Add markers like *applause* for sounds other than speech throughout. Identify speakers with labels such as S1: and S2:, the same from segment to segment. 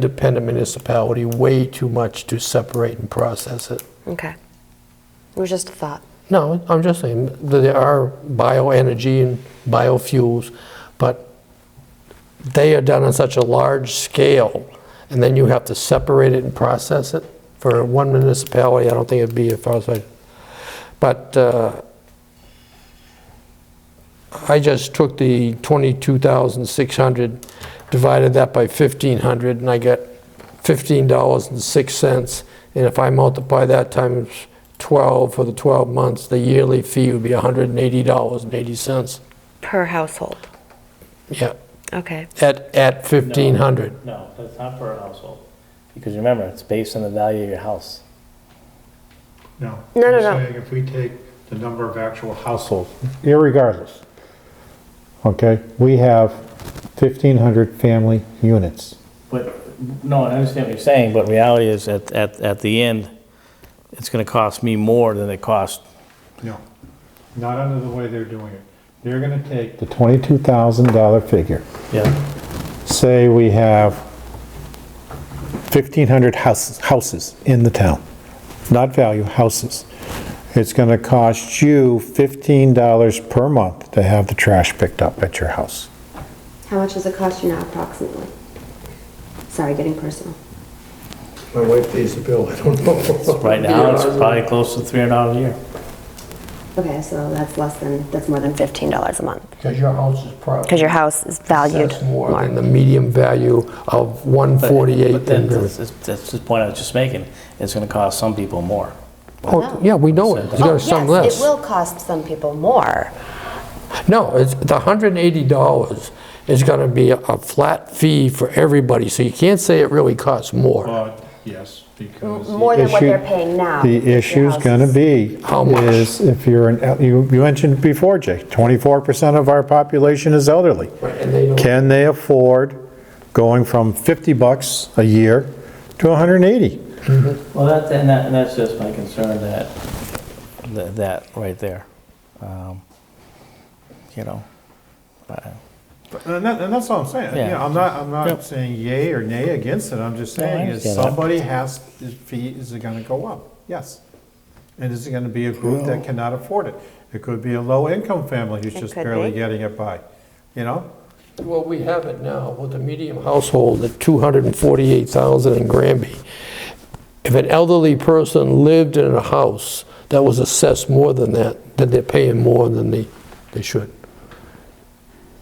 S1: independent municipality way too much to separate and process it.
S2: Okay. It was just a thought.
S1: No, I'm just saying, that there are bioenergy and biofuels, but they are done on such a large scale, and then you have to separate it and process it for one municipality, I don't think it'd be a far sight. But uh, I just took the 22,600, divided that by 1,500, and I got $15.06. And if I multiply that times 12 for the 12 months, the yearly fee would be $180.80.
S2: Per household.
S1: Yeah,
S2: Okay.
S1: at, at 1,500.
S3: No, that's not per household. Because remember, it's based on the value of your house.
S4: No.
S2: No, no,
S4: I'm
S2: no.
S4: saying if we take the number of actual households, irregardless, okay, we have 1,500 family units.
S3: But, no, I understand what you're saying, but reality is, at, at, at the end, it's gonna cost me more than it cost.
S4: No. Not under the way they're doing it. They're gonna take. The $22,000 figure.
S3: Yeah.
S4: Say we have 1,500 houses, houses in the town, not value, houses. It's gonna cost you $15 per month to have the trash picked up at your house.
S5: How much does it cost you now approximately? Sorry, getting personal.
S1: My wife pays the bill, I don't know. *laughs*
S3: Right now, it's probably close to three hundred dollars a year.
S5: Okay, so that's less than, that's more than $15 a month.
S1: Because your house is probably.
S2: Because your house is valued
S1: That's
S2: more.
S1: more than the medium value of
S3: But-
S1: 148.
S3: But then,
S1: and-
S3: that's, that's the point I was just making, it's gonna cost some people more.
S1: Oh, yeah, we know it, there's
S5: Oh,
S1: gonna some less.
S5: Yes, it will cost some people more.
S1: No, it's, the $180 is gonna be a- a flat fee for everybody, so you can't say it really costs more.
S4: But, yes, because.
S5: More than what
S6: issue-
S5: they're paying now. if
S6: The
S5: your
S6: issue's
S5: house
S6: gonna
S5: is-
S6: be,
S1: How much?
S6: is if you're, an you you mentioned before, Jake, 24% of our population is elderly.
S1: And they don't-
S6: Can they afford going from 50 bucks a year to 180?
S3: Well, that, and that, and that's just my concern, that, that, that right there. Um, You know, but- uh,
S4: And that, and that's what I'm saying, you
S3: Yeah.
S4: know, I'm not, I'm
S3: Yep.
S4: not saying yay or nay against it, I'm just
S3: No, I
S4: saying is
S3: understand that.
S4: somebody has, is fee, is it gonna go up? Yes. And is it gonna be a group that cannot afford it? It could be a low-income family who's
S2: It
S4: just
S2: could
S4: barely
S2: be.
S4: getting it by, you know?
S1: Well, we have it now with the medium household at 248,000 in Granby. If an elderly person lived in a house that was assessed more than that, then they're paying more than they, they should.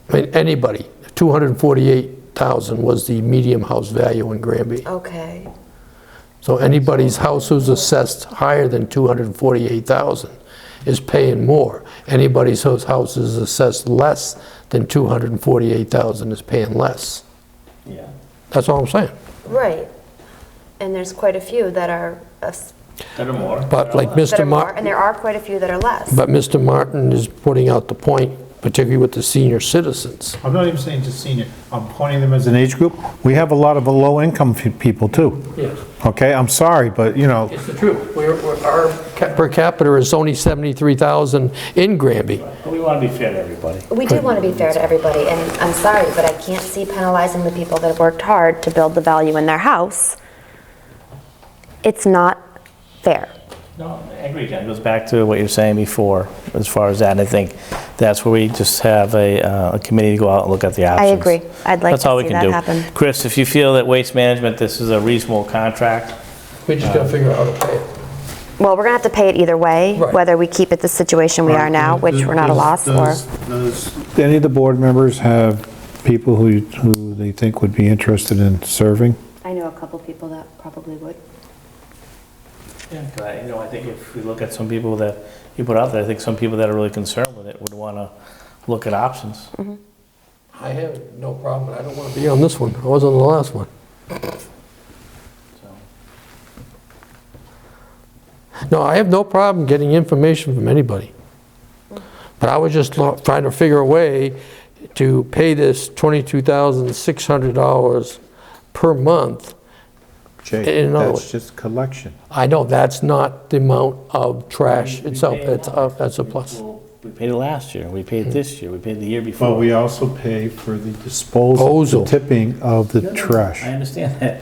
S1: I mean, anybody, 248,000 was the medium house value in Granby.
S2: Okay.
S1: So anybody's house who's assessed higher than 248,000 is paying more. Anybody's whose house is assessed less than 248,000 is paying less.
S3: yeah.
S1: That's all I'm saying.
S2: Right. And there's quite a few that are,
S5: uh,
S2: us-
S3: Better more.
S1: But like
S2: that are
S1: Mr.
S2: more, and
S1: Martin,
S2: there are quite a few that are less.
S1: but Mr. Martin is putting out the point, particularly with the senior citizens.
S4: I'm not even saying just senior, I'm pointing them as an age group.
S6: We have a lot of low-income fe- people too,
S1: Yes,
S6: okay? I'm sorry, but, you know,
S1: it's the truth. Our per capita is only 73,000 in Granby.
S3: But we want to be fair to everybody.
S5: We do want to be fair to everybody, and I'm sorry, but I can't see penalizing the people that have worked hard to build the value in their house. It's not fair.
S3: No, I agree, Jen. It goes back to what you were saying before, as far as that, and I think that's where we just have a, uh, a committee to go out and look at the options.
S5: agree. I'd like
S3: That's
S5: to
S3: all we
S5: see
S3: can
S5: that
S3: do.
S5: happen.
S3: Chris, if you feel that waste management, this is a reasonable contract,
S1: We just gotta figure out how to pay it.
S5: Well, we're going to have to pay it either way,
S1: Right.
S5: whether we keep it the situation we are now, which we're not a loss for.
S4: Does
S6: any of the board members have people who, who they think would be interested in serving?
S5: I know a couple people that probably would.
S3: Yeah, 'cause I- uh, you know, I think if we look at some people that you put out there, I think some people that are really concerned with it would want to look at options.
S5: Mm-hmm.
S1: I have no problem, I don't wanna be on this one. I was on the last one.
S3: So.
S1: No, I have no problem getting information from anybody. But I was just lo- trying to figure a way to pay this $22,600 per month.
S4: Jay,
S1: In other
S4: that's
S1: words-
S4: just collection.
S1: I know that's not the amount of trash itself, that's a, that's a plus.
S3: Well, We paid it last year, we paid it this year, Hmm. we paid it the year before.
S4: But we also pay for the disposal,
S1: Disposal.
S4: the tipping of the trash.
S3: I understand that.